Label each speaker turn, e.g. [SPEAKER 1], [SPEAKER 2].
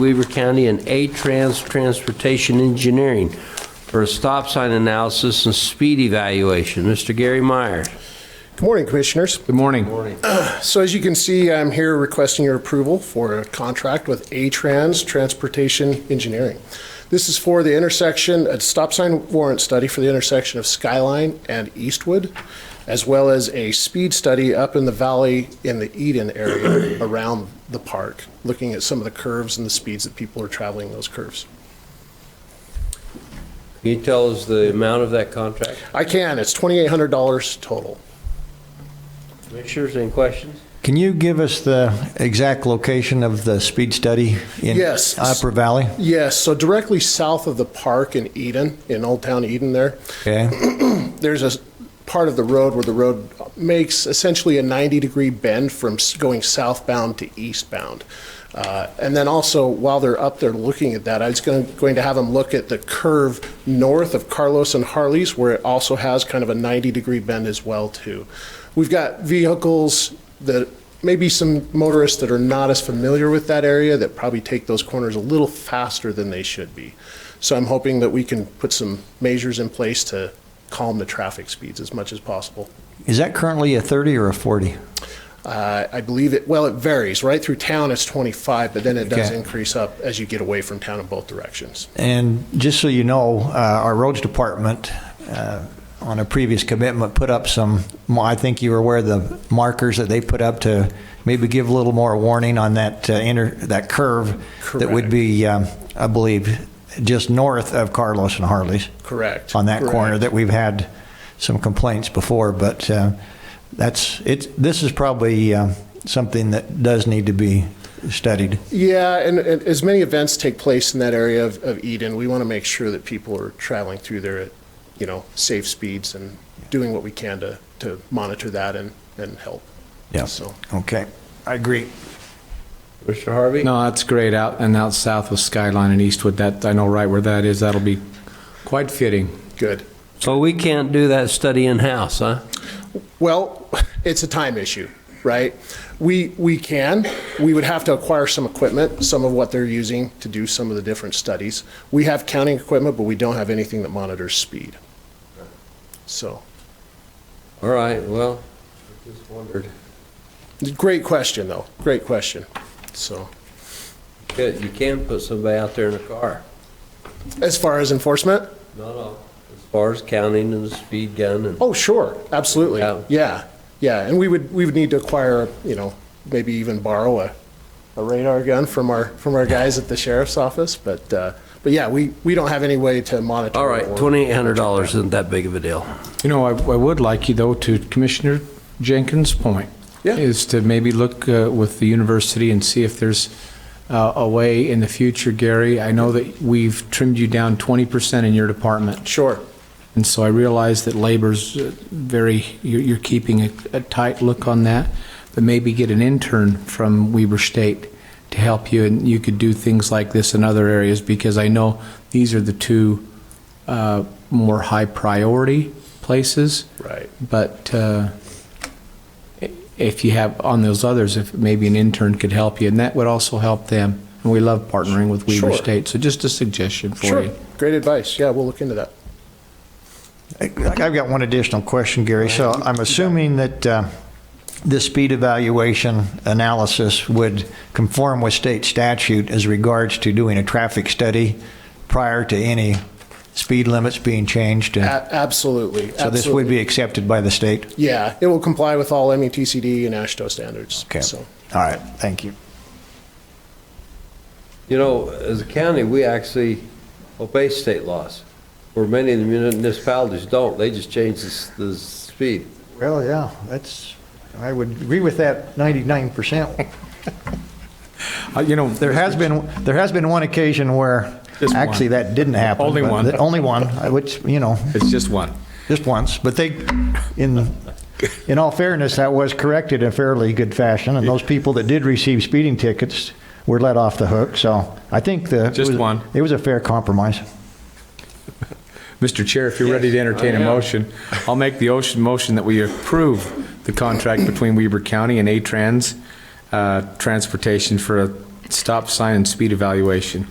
[SPEAKER 1] Weaver County and A-Trans Transportation Engineering for a stop sign analysis and speed evaluation. Mr. Gary Meyer.
[SPEAKER 2] Good morning, Commissioners.
[SPEAKER 3] Good morning.
[SPEAKER 2] So as you can see, I'm here requesting your approval for a contract with A-Trans Transportation Engineering. This is for the intersection, a stop sign warrant study for the intersection of Skyline and Eastwood, as well as a speed study up in the valley in the Eden area around the park, looking at some of the curves and the speeds that people are traveling those curves.
[SPEAKER 1] Can you tell us the amount of that contract?
[SPEAKER 2] I can, it's $2,800 total.
[SPEAKER 1] Commissioners, any questions?
[SPEAKER 3] Can you give us the exact location of the speed study in
[SPEAKER 2] Yes.
[SPEAKER 3] Opera Valley?
[SPEAKER 2] Yes, so directly south of the park in Eden, in Old Town Eden there,
[SPEAKER 3] Okay.
[SPEAKER 2] there's a part of the road where the road makes essentially a 90-degree bend from s- going southbound to eastbound. Uh, And then also, while they're up there looking at that, I was going going to have them look at the curve north of Carlos and Harley's, where it also has kind of a 90-degree bend as well, too. We've got vehicles that, maybe some motorists that are not as familiar with that area that probably take those corners a little faster than they should be. So I'm hoping that we can put some measures in place to calm the traffic speeds as much as possible.
[SPEAKER 3] Is that currently a 30 or a 40?
[SPEAKER 2] Uh, I believe it, well, it varies, right? Through town, it's 25, but then it does
[SPEAKER 3] Okay.
[SPEAKER 2] increase up as you get away from town in both directions.
[SPEAKER 3] And just so you know, uh, our roads department, uh, on a previous commitment, put up some, I think you were aware of the markers that they put up to maybe give a little more warning on that uh, inter, that curve that would be, um, I believe, just north of Carlos and Harley's.
[SPEAKER 2] Correct.
[SPEAKER 3] On that corner
[SPEAKER 2] Correct.
[SPEAKER 3] that we've had some complaints before, but uh, that's, it's, this is probably uh, something that does need to be studied.
[SPEAKER 2] Yeah, and, and as many events take place in that area of, of Eden, we want to make sure that people are traveling through there at, you know, safe speeds and doing what we can to, to monitor that and, and help.
[SPEAKER 3] Yeah.
[SPEAKER 2] So,
[SPEAKER 3] Okay, I agree.
[SPEAKER 1] Mr. Harvey?
[SPEAKER 4] No, that's great. Out and out south with Skyline and Eastwood, that, I know right where that is. That'll be quite fitting.
[SPEAKER 2] good.
[SPEAKER 1] So we can't do that study in-house, huh?
[SPEAKER 2] Well, it's a time issue, right? We, we can, we would have to acquire some equipment, some of what they're using to do some of the different studies. We have counting equipment, but we don't have anything that monitors speed. So,
[SPEAKER 1] All right, well, I just wondered.
[SPEAKER 2] great question, though, great question, so.
[SPEAKER 1] Good, you can put somebody out there in a car.
[SPEAKER 2] As far as enforcement?
[SPEAKER 1] No, no. As far as counting and the speed gun and,
[SPEAKER 2] Oh, sure, absolutely.
[SPEAKER 1] Yeah.
[SPEAKER 2] Yeah, yeah, and we would, we would need to acquire, you know, maybe even borrow a, a radar gun from our, from our guys at the sheriff's office, but, uh, but yeah, we, we don't have any way to monitor.
[SPEAKER 1] all right,
[SPEAKER 2] or-
[SPEAKER 1] $2,800 isn't that big of a deal.
[SPEAKER 4] You know, I, I would like you though to Commissioner Jenkins' point.
[SPEAKER 2] Yeah.
[SPEAKER 4] Is to maybe look uh, with the university and see if there's uh, a way in the future, Gary. I know that we've trimmed you down 20% in your department.
[SPEAKER 2] Sure,
[SPEAKER 4] And so I realize that labor's uh, very, you're, you're keeping a, a tight look on that, but maybe get an intern from Weber State to help you, and you could do things like this in other areas, because I know these are the two uh, more high priority places.
[SPEAKER 2] Right.
[SPEAKER 4] But uh, i- if you have, on those others, if maybe an intern could help you, and that would also help them. And we love partnering with Weber
[SPEAKER 2] Sure.
[SPEAKER 4] State, so just a suggestion for
[SPEAKER 2] sure,
[SPEAKER 4] you.
[SPEAKER 2] great advice, yeah, we'll look into that.
[SPEAKER 3] I've got one additional question, Gary. So I'm assuming that uh, this speed evaluation analysis would conform with state statute as regards to doing a traffic study prior to any speed limits being changed?
[SPEAKER 2] A-
[SPEAKER 3] and-
[SPEAKER 2] Absolutely,
[SPEAKER 3] So this would
[SPEAKER 2] absolutely.
[SPEAKER 3] be accepted by the state?
[SPEAKER 2] Yeah, it will comply with all E METCD and ASHTO standards,
[SPEAKER 3] Okay.
[SPEAKER 2] so.
[SPEAKER 3] All right, thank you.
[SPEAKER 1] You know, as a county, we actually obey state laws, where many of the municipalities don't. They just change the, s- the speed.
[SPEAKER 3] Well, yeah, that's, I would agree with that 99%.
[SPEAKER 4] Uh, You know,
[SPEAKER 3] There has been, there has been one occasion where,
[SPEAKER 4] Just one.
[SPEAKER 3] actually, that didn't happen.
[SPEAKER 4] Only
[SPEAKER 3] but
[SPEAKER 4] one.
[SPEAKER 3] the- Only one, I- which, you know,
[SPEAKER 4] It's just one.
[SPEAKER 3] just once, but they, in, in all fairness, that was corrected in fairly good fashion, and those people that did receive speeding tickets were let off the hook, so I think the. it
[SPEAKER 4] Just
[SPEAKER 3] was-
[SPEAKER 4] one.
[SPEAKER 3] It was a fair compromise.
[SPEAKER 4] Mr. Chair, if you're ready to entertain
[SPEAKER 1] I
[SPEAKER 4] a
[SPEAKER 1] am.
[SPEAKER 4] motion, I'll make the ocean motion that we approve the contract between Weber County and A-Trans uh, Transportation for a stop sign and speed evaluation.